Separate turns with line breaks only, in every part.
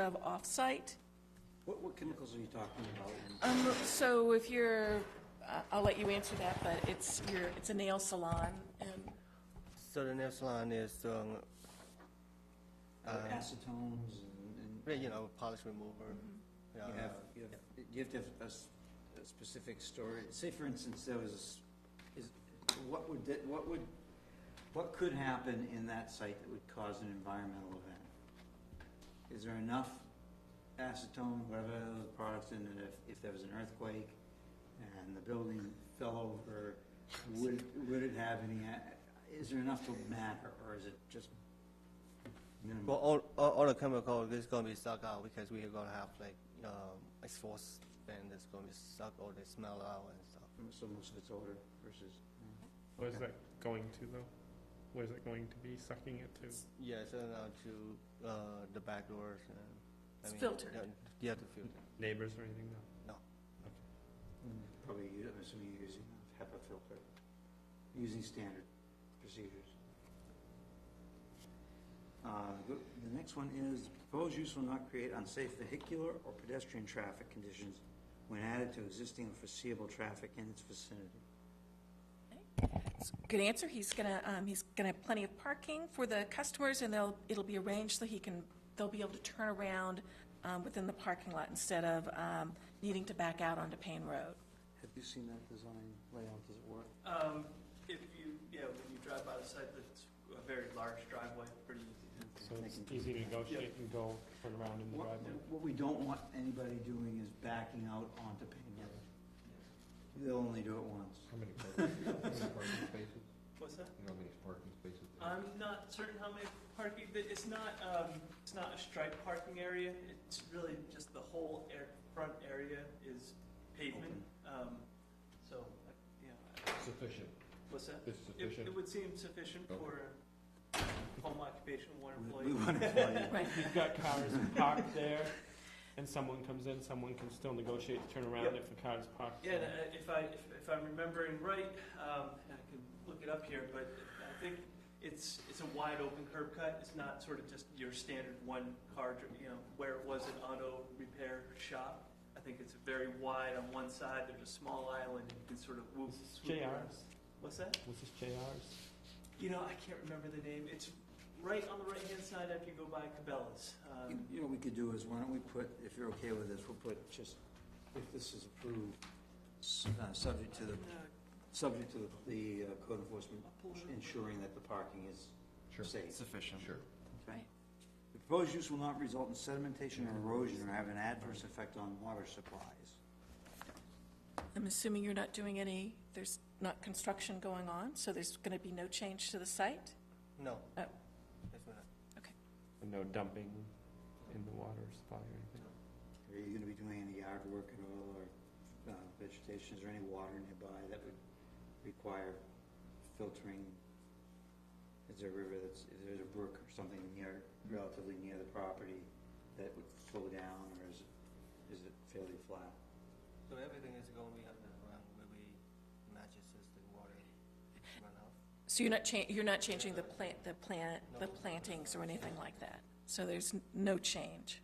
have off-site.
What, what chemicals are you talking about?
Um, so if you're, I- I'll let you answer that, but it's your, it's a nail salon and
So the next line is, um,
Like Acetones and, and
you know, polish remover.
Mm-hmm.
Uh, Yeah,
you have, you have, you have to have a, s- a specific story. Say, for instance, there was, is, what would, that- what would, what could happen in that site that would cause an environmental event? Is there enough acetone, whatever those products in it, if, if there was an earthquake and the building fell over, would, would it have any, a- is there enough to matter, or is it just
Well,
minimal?
all, all, all the chemical is gonna be sucked out because we're gonna have like, um, exhaust fan that's gonna be suck all the smell out and stuff.
So most of it's odor versus,
Where's that going to though? Where's it going to be sucking it to?
Yes, and out to, uh, the back doors and. I
It's
mean,
filtered.
yeah, You have to filter.
Neighbors or anything? No.
Probably, u- I'm assuming you're using a HEPA filter, using standard procedures. Uh, The the next one is, proposed use will not create unsafe vehicular or pedestrian traffic conditions when added to existing or foreseeable traffic in its vicinity.
It's a Good answer. He's gonna, um, he's gonna have plenty of parking for the customers and they'll, it'll be arranged so he can, they'll be able to turn around, um, within the parking lot instead of, um, needing to back out onto Payne Road.
Have you seen that design layout, does it work?
Um, if you, yeah, when you drive by the site, it's a very large driveway, pretty easy to
So it's easy to negotiate and go turn around in the
What,
driveway.
what we don't want anybody doing is backing out onto Payne Road. They'll only do it once.
How many parking, how many parking spaces?
What's that?
You know how many parking spaces? there are?
I'm not certain how many parking, but it's not, um, it's not a striped parking area. It's really just the whole air, front area is pavement.
Open.
Um, so, uh, yeah,
Sufficient,
what's that?
it's
It,
sufficient.
it would seem sufficient
Okay.
for home occupation, one
We-
employee.
We want to play.
Right.
You've got cars parked there and someone comes in, someone can still negotiate to turn around if the car is parked.
Yeah, and I- if I, if- if I'm remembering right, um, and I can look it up here, but I think it's, it's a wide open curb cut. It's not sort of just your standard one car, dri- you know, where it was an auto repair shop. I think it's very wide on one side, there's a small island, you can sort of whoop.
This is
swoop around.
JR's.
What's that?
Was this JR's?
You know, I can't remember the name. It's right on the right-hand side after you go by Cabela's.
You
Um,
you know, what we could do is, why don't we put, if you're okay with this, we'll put just, if this is approved, s- uh, subject to the,
uh,
subject to the uh, code enforcement
I'll pull it up.
ensuring that the parking is
Sure,
safe.
Sufficient.
sure.
Okay. The proposed use will not result in sedimentation or erosion or have an adverse effect on water supplies.
I'm assuming you're not doing any, there's not construction going on, so there's gonna be no change to the site?
No.
Oh.
That's what I-
And no dumping in the water supply or anything?
Are you gonna be doing any yard work at all, or uh, vegetation, is there any water nearby that would require filtering? Is there a river that's, is there a brook or something near, relatively near the property that would flow down, or is it, is it fairly flat?
So everything is gonna be underground where we matches as the water run out.
So you're not cha, you're not changing the plant, the plant, the plantings or anything like that? So there's n- no change?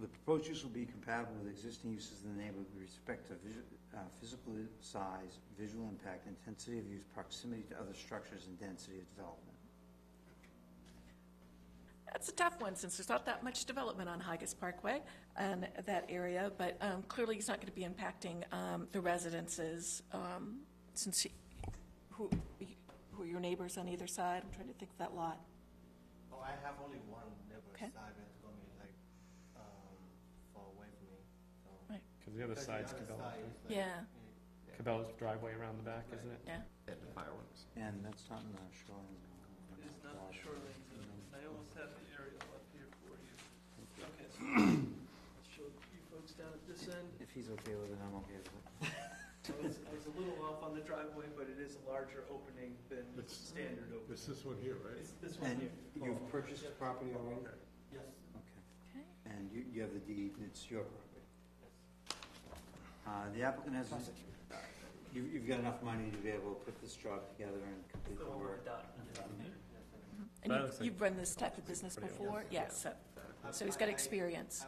The proposed use will be compatible with existing uses in the neighborhood with respect to visu- uh, physical size, visual impact, intensity of use, proximity to other structures, and density of development.
That's a tough one, since there's not that much development on Higas Parkway and that area, but um, clearly he's not going to be impacting um, the residences, um, since, he- who, who are your neighbors on either side? I'm trying to think of that lot.
Oh, I have only one neighbor
Okay.
side that's gonna be like, um, far away from me, so.
Right.
Cause the other
Because the
side's
other side
Cabela's. right?
is like-
Yeah,
mm,
Cabela's driveway around the back, isn't it?
yeah.
And the fireworks.
And that's not in the shoreline zone.
It's not the shoreline zone. I almost have the aerial up here for you. Okay, so I'll show you folks down at this end.
If he's okay with it, I'm okay with it.
I was, I was a little off on the driveway, but it is a larger opening than
It's-
standard opening.
this one here,
It's this one
And
here.
you've purchased the property already?
Yes.
Okay.
Okay.
And you, you have the deed, and it's your property? Uh, the applicant has, you, you've got enough money to be able to put this job together and complete
The
the
one with
work?
the dot.
And
That
you've-
looks like-
you've run this type of business
pretty
before? Yes, so, So he's got experience.